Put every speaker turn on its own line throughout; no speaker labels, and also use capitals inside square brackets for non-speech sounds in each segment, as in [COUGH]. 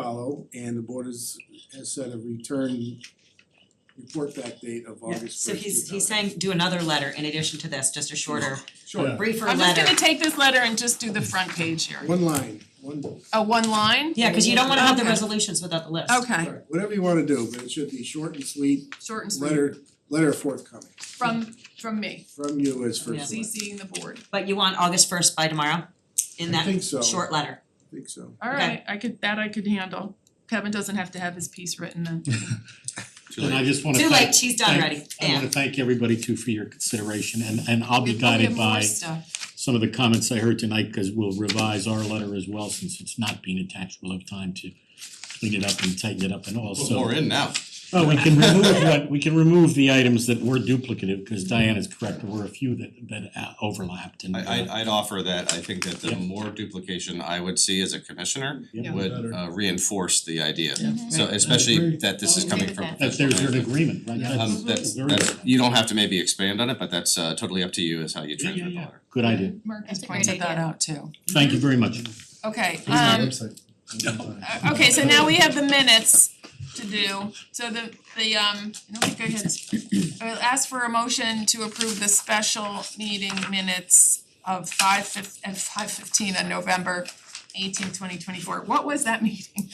follow and the board has has set a return report back date of
Yeah,
August
So
first.
he's he's saying do another letter in addition to this, just a shorter,
Sure,
[LAUGHS] briefer
I'm just gonna
letter.
take this letter and just do the front page here.
one line, one,
A one line?
Yeah, cause you don't wanna have the
Okay.
resolutions without the list.
Okay,
alright, whatever you wanna do, but it should be short and sweet,
short and sweet.
letter letter forthcoming
From from me,
from you as
Yeah.
first select.
CCing the board.
But you want August first by tomorrow in
I
that
think so, I
short letter.
think so.
Alright, I could, that I could handle. Kevin doesn't have to have his piece written then.
And I just wanna
Too
thank.
late, she's done
thank-
already,
I wanna
and
thank everybody too for your consideration and and I'll be
We- we have
guided
more
by
stuff.
some of the comments I heard tonight, cause we'll revise our letter as well, since it's not being attached, we'll have time to clean it up and tighten it up and
Put
also.
more in now.
Oh, we can remove what, we can remove the items that were duplicative, cause Diana's correct, there were a few that that uh, overlapped and.
I
uh,
I I'd offer that, I think that the
Yeah.
more duplication I would see as a commissioner
Yeah.
would
Better.
uh reinforce the idea.
Mhm.
So
Right, I
especially
agree.
that this is
I'll
coming
agree
from
with
That there's an
professional
agreement, right?
Yeah.
Um that's
very
that's,
good.
you don't have to maybe expand on it, but that's uh totally up to you as how
Yeah, yeah,
you transmit the
yeah.
letter.
Good idea,
Mark has
That's a great
pointed that
idea.
out too.
thank you very much.
Okay, um.
Here's my website.
Uh, okay, so now we have the minutes to do, so the the um, I don't think I had, I'll ask for a motion to approve the special meeting minutes of five fif- and five fifteen on November 18, 2024. what was that [LAUGHS] meeting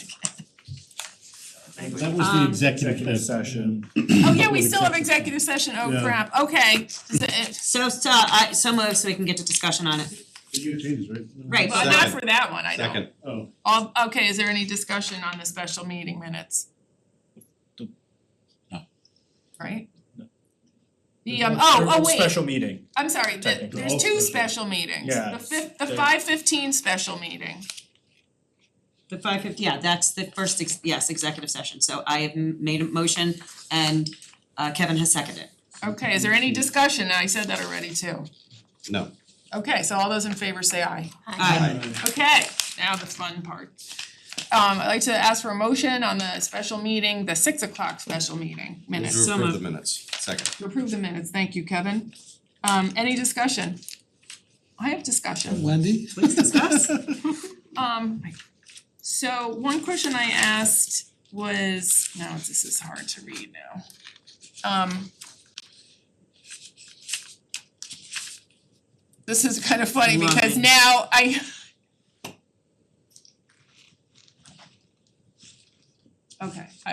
That
again?
was the
Um,
executive.
Executive session.
Oh, yeah, we still have executive session, oh
Yeah.
crap, okay, Is it-
so so I so moved so we can get to discussion on it.
You changes, right?
Right.
well, not for that one, I don't.
Second,
Oh,
All, okay, is there any discussion on the special meeting minutes?
The-
no.
Right?
No.
The um, oh, oh wait,
Special meeting.
I'm sorry, the,
Technically,
there's
all
two
special.
special meetings,
Yeah,
the
it's-
fif- the
they-
five fifteen special meeting,
The five fifty, yeah, that's the first, ex- yes, executive session, so I have m- made a motion and uh Kevin has seconded.
okay, is there any discussion, I said that already too.
no,
Okay, so all those in favor say aye,
Aye.
okay, now the fun part. Um, I'd like to ask for a motion on the special meeting, the six o'clock special meeting
move
minutes,
to
So
approve the
moved.
minutes, second.
to approve the minutes, thank you, Kevin. Um, any discussion? I have discussion.
Wendy?
Please discuss.
Um, so one question I asked was, now this is hard to read now. Um. This is kind of funny because
Lovely.
now I. Okay, I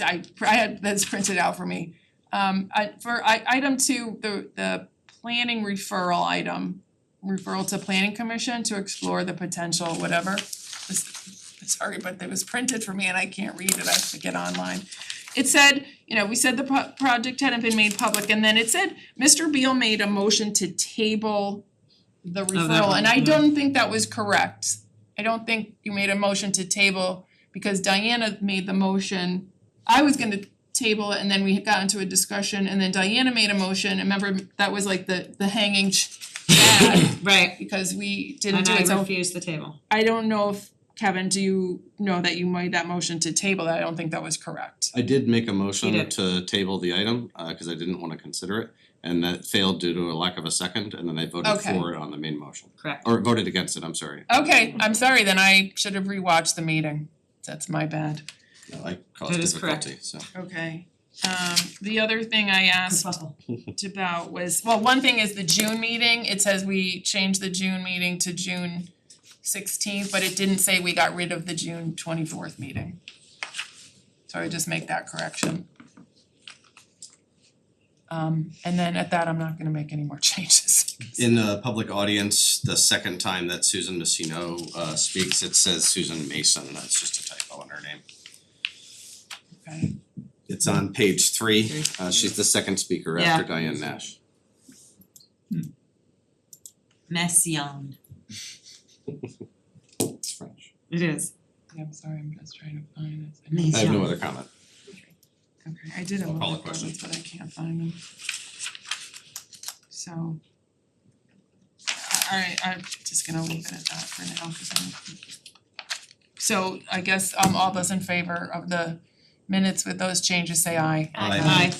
I- I I had this printed out for me. Um, I for I item two, the the planning referral item, referral to planning commission to explore the potential, whatever. This, sorry, but it was printed for me and I can't read it, I have to get online. It said, you know, we said the pro- project hadn't been made public and then it said, Mr. Beal made a motion to table the referral,
Oh, one,
and I
yeah.
don't think that was correct. I don't think you made a motion to table because Diana made the motion. I was gonna table it and then we got into a discussion and then Diana made a motion, and remember, that was like the the hanging ch- bag
Right,
because we didn't
and
do it,
I
so
refuse the table.
I don't know if, Kevin, do you know that you made that motion to table that, I don't think that was correct.
[LAUGHS] I did make a
You
motion
did.
to table the item, uh cause I didn't wanna consider it, and that failed due to a lack of a second, and then I voted
Okay.
for it on the main motion.
Correct.
Or voted against it, I'm sorry.
Okay, I'm sorry, then I should have rewatched the meeting, that's my bad.
No, I caused
That is correct.
difficulty, so.
Okay, um, the other thing I asked about was, well, one thing is the June meeting, it says we changed the June meeting to June sixteenth, but it didn't say we got rid of the June twenty-fourth meeting. So I just make that correction. Um, and then at that, I'm not gonna make any more [LAUGHS] changes.
In the public audience, the second time that Susan Messino uh speaks, it says Susan Mason, that's just a typo in her name.
Okay,
It's on page three,
Three.
uh she's the second speaker after Diane Nash.
Messiaen,
It's French.
it is.
yeah, I'm sorry, I'm just trying to find this.
I have no other comment.
Okay, I did have
I'll
all
call
the
a question.
comments, but I can't find them. So. Alright, I'm just gonna leave it at that for now, cause I'm. So I guess um all those in favor of the minutes with those changes say aye.
Aye.
Aye.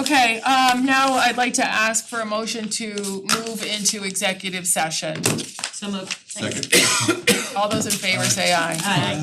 Okay, um now I'd like to ask for a motion to move into executive session.
So moved. Thank you.
[COUGHS] Second.
All those in favor say aye.
Aye.